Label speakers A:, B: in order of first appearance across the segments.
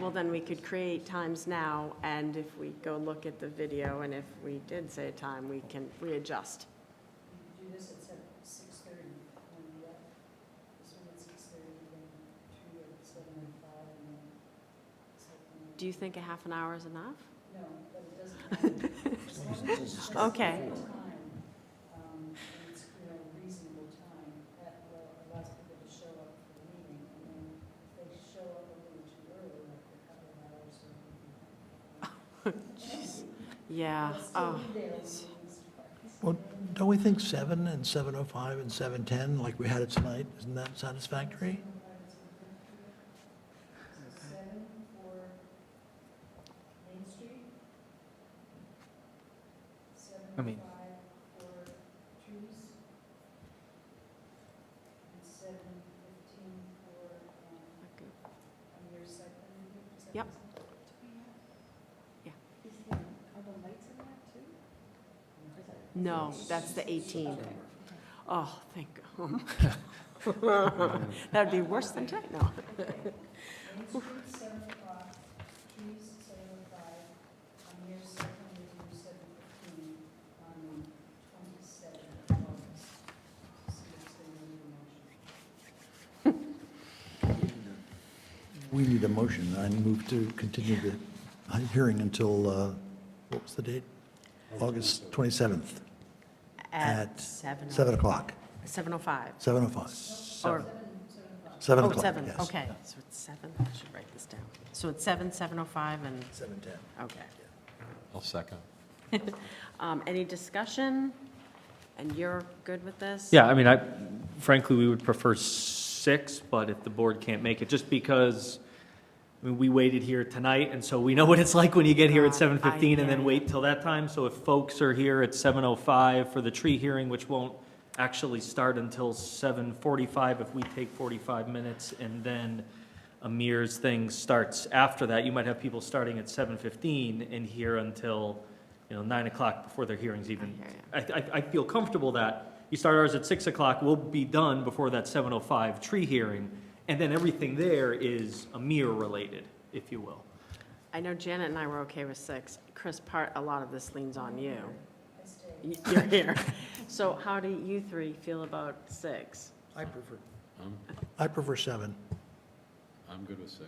A: well, then we could create times now, and if we go look at the video, and if we did say a time, we can readjust.
B: Do this at seven, six thirty, when we, uh, this one at six thirty, then two at seven and five, and then something.
A: Do you think a half an hour is enough?
B: No, but it doesn't. matter. As long as it's just
A: Okay.
B: a time, um, and it's, you know, reasonable time, that will allow people to show up for the meeting, and then if they show up a little too early, like a couple of hours or. Jeez.
A: Yeah, oh,
C: Well, don't we think seven and seven oh five and seven ten, like we had it tonight, isn't that satisfactory?
B: Seven for Main Street.
D: I
B: Seven
D: mean-
B: five for Trees. And seven fifteen for, um,
A: okay.
B: on your side. plan review, is that
A: Yep.
B: what
A: Yeah.
B: it's- Are the lights in that too?
A: no, that's the 18. Oh, thank God. That'd be worse than tonight, no.
B: Main Street, seven o'clock, trees, seven oh five, on your second meeting, seven fifteen, Um, on twenty-seventh of August. See if they need a motion.
C: We need a motion, I move to continue the hearing until, uh, what was the date? August twenty-seventh, At
A: seven.
C: seven o'clock,
A: 7:05.
C: seven oh five,
A: Or,
C: seven
A: oh,
C: o'clock, yes.
A: seven, okay. So it's seven, I should write this down. So it's seven, 7:05, and,
C: Seven ten.
A: okay.
E: I'll second.
A: Um, Any discussion? And you're good with this?
D: Yeah, I mean, I, frankly, we would prefer six, but if the board can't make it, just because, I mean, we waited here tonight, and so we know what it's like when you get here at
A: God, I-
D: seven fifteen and then
A: yeah.
D: wait till that time, so if folks are here at seven oh five for the tree hearing, which won't actually start until seven forty-five, if we take forty-five minutes, and then Amir's thing starts after that, you might have people starting at seven fifteen and here until, you know, nine o'clock before their hearing's even
A: hear ya.
D: I, I, I feel comfortable that you start ours at six o'clock, we'll be done before that seven oh five tree hearing, and then everything there is a mirror related, if you will.
A: I know Janet and I were okay with six. Chris, part, a lot of this leans on you. Y- You're here. So how do you three feel about six?
C: I prefer.
E: I'm,
C: I prefer seven.
E: I'm good with six.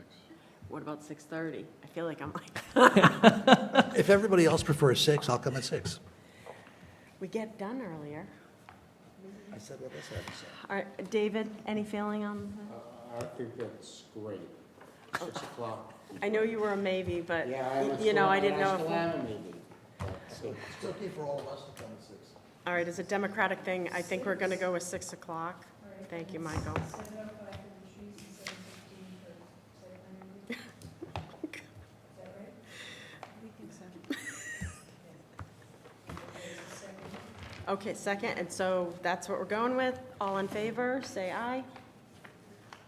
A: What about 6:30? I feel like I'm like,
C: If everybody else prefers six, I'll come at six.
A: we get done earlier.
C: I said what I said, so.
A: All right, David, any feeling on?
F: Uh, I think that's great, six o'clock.
A: that? I know you were a maybe, but,
F: Yeah, I
A: y-
F: was
A: you know, I
F: going
A: didn't know.
F: last
A: if-
F: Atlanta meeting, but so-
C: It's okay for all of us to come at six.
A: All right, as a democratic thing, I think we're going to go with 6 o'clock. Thank you, Michael.
B: Seven oh five for the trees and seven fifteen for site plan review. Is that right? We think so. second.
A: Okay, second, and so that's what we're going with. All in favor, say aye.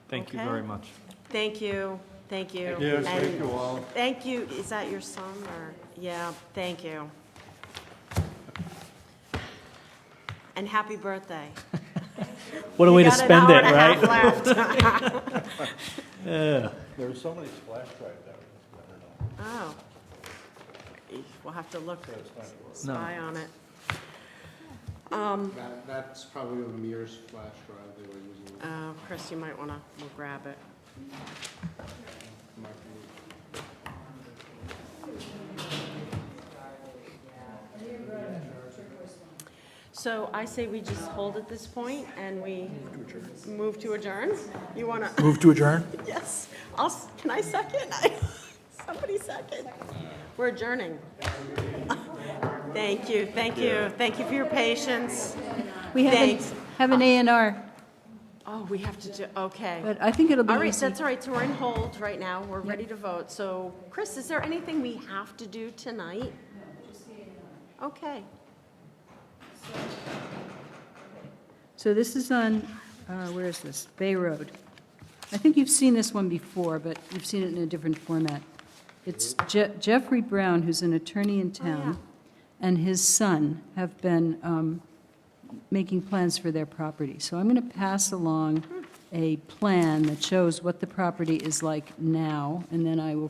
D: Thank you
A: Okay.
D: very much.
A: Thank you, thank you.
F: Yes, thank
A: And
F: you all.
A: Thank you, is that your son, or, yeah, thank you. And happy birthday.
D: What a way to
A: You got an
D: spend
A: hour
D: it,
A: and a half
D: right?
A: left.
G: There were so many splash drives out there, I don't know.
A: Oh. Eesh, Oh. We'll have to look, spy on it.
F: That, that's probably a Mears flash drive they were using.
A: Oh, Chris, you might want to, we'll grab it.
F: Might be-
A: So I say we just hold at this point, and we move to adjourn? You want to?
C: Move to adjourn?
A: Yes, I'll, s- can I second? I- Somebody second. We're adjourning. Thank you, thank you, thank you for your patience.
H: We have an,
A: Thanks.
H: have an A and R,
A: Oh, we have to do, okay.
H: but I think it'll be
A: All right,
H: easy.
A: that's all right, so we're in hold right now, we're ready to vote. So, Chris, is there anything we have to do tonight? Okay,
H: So this is on, uh, where is this? Bay Road. I think you've seen this one before, but you've seen it in a different format. It's Je- Jeffrey Brown, who's an attorney
A: Oh,
H: in town, and his son have been um, making plans for their property. So I'm going to pass
A: Hmm.
H: along a plan that shows what the property is like now, and then I will